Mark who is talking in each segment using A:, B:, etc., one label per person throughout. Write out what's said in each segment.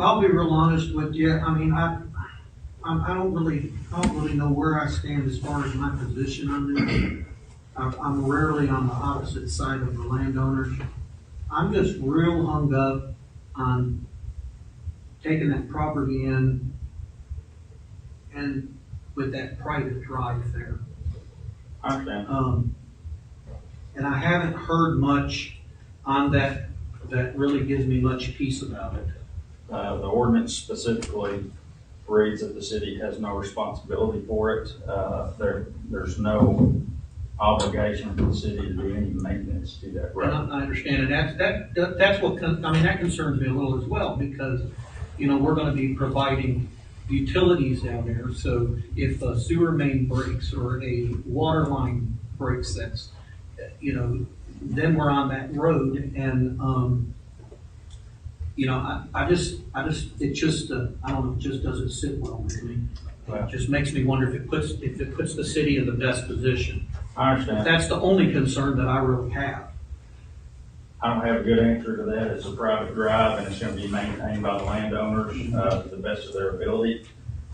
A: I'll be real honest with you, I mean, I, I, I don't really, I don't really know where I stand as far as my position on this. I'm, I'm rarely on the opposite side of the landowners. I'm just real hung up on taking that property in and with that private drive there.
B: I understand.
A: Um, and I haven't heard much on that, that really gives me much peace about it.
B: Uh, the ordinance specifically reads that the city has no responsibility for it. Uh, there, there's no obligation for the city to do any maintenance to that
A: And
B: road.
A: I, I understand, and that's, that, that- that's what, con- I mean, that concerns me a little as well, because, you know, we're gonna be providing utilities down there, so if a sewer main breaks or a water line breaks, that's, uh, you know, then we're on that road, and, um, you know, I, I just, I just, it just, uh, I don't know, it just doesn't sit well with me.
B: Well-
A: It just makes me wonder if it puts, if it puts the city in the best position.
B: I understand.
A: That's the only concern that I really have.
B: I don't have a good answer to that. It's a private drive and it's gonna be maintained by the landowners, uh, to the best of their ability.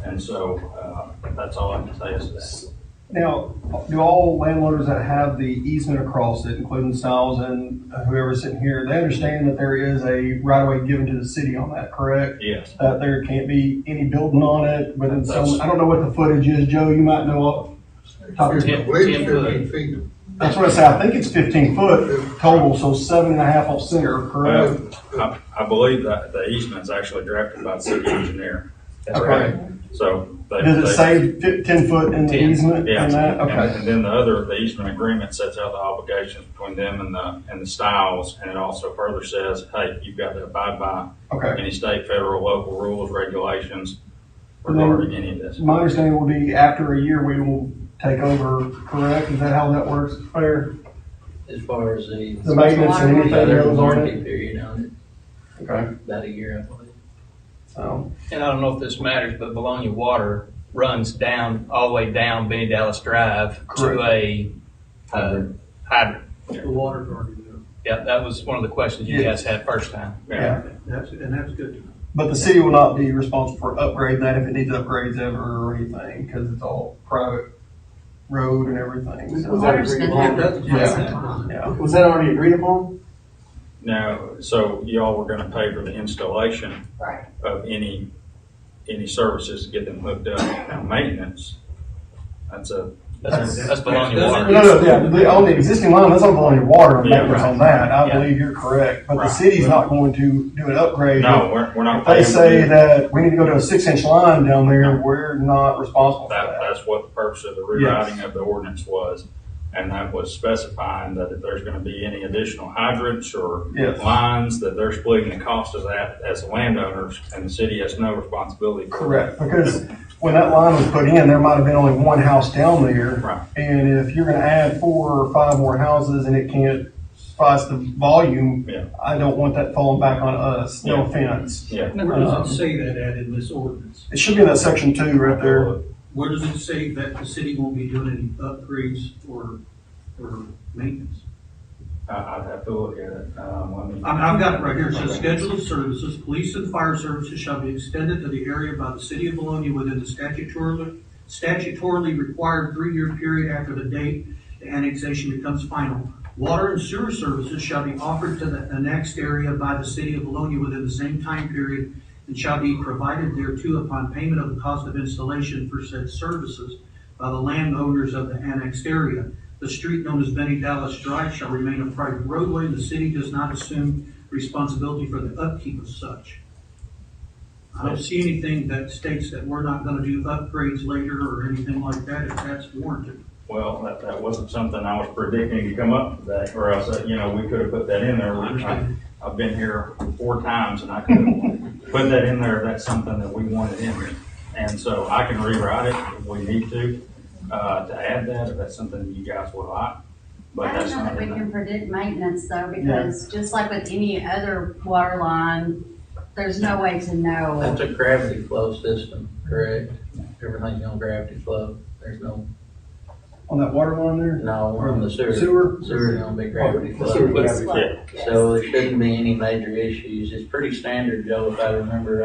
B: And so, uh, that's all I can say is that.
C: Now, do all landowners that have the easement across it, including Styles and whoever's sitting here, they understand that there is a right of way given to the city on that, correct?
B: Yes,
C: That there can't be any building on it within
B: That's-
C: some, I don't know what the footage is, Joe, you might know off the top of your head.
D: I believe it's fifteen feet.
C: That's what I said, I think it's fifteen foot total, so seven and a half off center,
B: well,
C: correct?
B: Uh, I, I believe that the easement's actually drafted by the city engineer.
C: Okay.
B: So. they-
C: Does
B: they-
C: it say fif- ten foot in the
E: Ten,
C: easement
B: Yeah,
C: and that?
B: and-
C: Okay.
B: And then the other, the easement agreement sets out the obligations between them and the, and the Styles, and it also further says, hey, you've got to abide by
C: Okay.
B: any state, federal, local rules, regulations regarding any of this.
C: My understanding will be after a year, we will take over, correct? Is that how that works? Fair?
E: As far as the.
C: The maintenance and anything
E: Yeah, there's a
C: else on it?
E: warranty period on
C: Okay,
E: it, about a year, I believe.
C: so,
F: And I don't know if this matters, but Bologna Water runs down, all the way down Benny Dallas Drive to a, uh, hydrant.
A: The water's already there.
F: Yeah, that was one of the questions you guys had first time.
C: yeah.
A: That's, and that's good.
C: But the city will not be responsible for upgrading that if it needs upgrades ever or anything, because it's all private road and everything, so.
G: Was that agreed
A: It
G: upon?
A: does pass that line.
C: Yeah,
G: Was that already agreed upon?
B: Now, so y'all were gonna pay for the installation
G: Right.
B: of any, any services to get them hooked up. Now, maintenance, that's a,
F: That's,
C: That's-
F: that's Bologna
A: that's-
F: Water.
C: no, no, yeah, the- on the existing line, that's not blowing your water,
B: Yeah,
C: maintenance
B: right.
C: on that, I
F: Yeah.
C: believe you're correct, but the
B: Right.
C: city's not going to do an upgrade.
B: no, we're, we're not.
C: If they
B: paying for
C: say
B: that.
C: that we need to go to a six inch line down there, we're not responsible for
B: That,
C: that.
B: that's what the purpose of the rewriting of the ordinance was, and that was specifying that if there's gonna be any additional hydrants or
C: Yes.
B: lines, that they're splitting the cost of that as the landowners, and the city has no responsibility. for that.
C: Correct, because when that line was put in, there might have been only one house down there.
B: Right.
C: And if you're gonna add four or five more houses and it can't suffice the volume,
B: Yeah.
C: I don't want that falling back on us,
B: Yeah.
C: no offense.
B: Yeah.
A: Where does it say that at in this ordinance?
C: It should be in that section two right there.
A: Where does it say that the city won't be doing any upgrades or, or maintenance?
B: I, I'd have to look at it, um, let me.
A: I mean, I've got it right here, it says, "Schedule of services, police and fire services shall be extended to the area by the city of Bologna within the statutorily, statutorily required three-year period after the date the annexation becomes final. Water and sewer services shall be offered to the annexed area by the city of Bologna within the same time period and shall be provided thereto upon payment of the cost of installation for said services by the landowners of the annexed area. The street known as Benny Dallas Drive shall remain a private roadway, and the city does not assume responsibility for the upkeep of such. I don't see anything that states that we're not gonna do upgrades later or anything like that if that's warranted.
B: Well, that, that wasn't something I was predicting to come up today, or else, uh, you know, we could have put that in there.
A: I understand.
B: I- I've been here four times and I could have put that in there, that's something that we wanted in there. And so I can rewrite it if we need to, uh, to add that, if that's something you guys would like, but
H: I
B: that's
H: don't know
B: not
H: that we
B: in there.
H: can predict maintenance though, because just like with any other water line, there's no way to know.
E: That's a gravity flow system, correct? Everything's on gravity flow. There's no,
C: On that water line there?
E: no, we're on the sewer.
C: Sewer?
E: Sewer's gonna be gravity
G: The sewer
E: flow.
G: gravity.
H: Yes.
E: So there shouldn't be any major issues. It's pretty standard, Joe, if I remember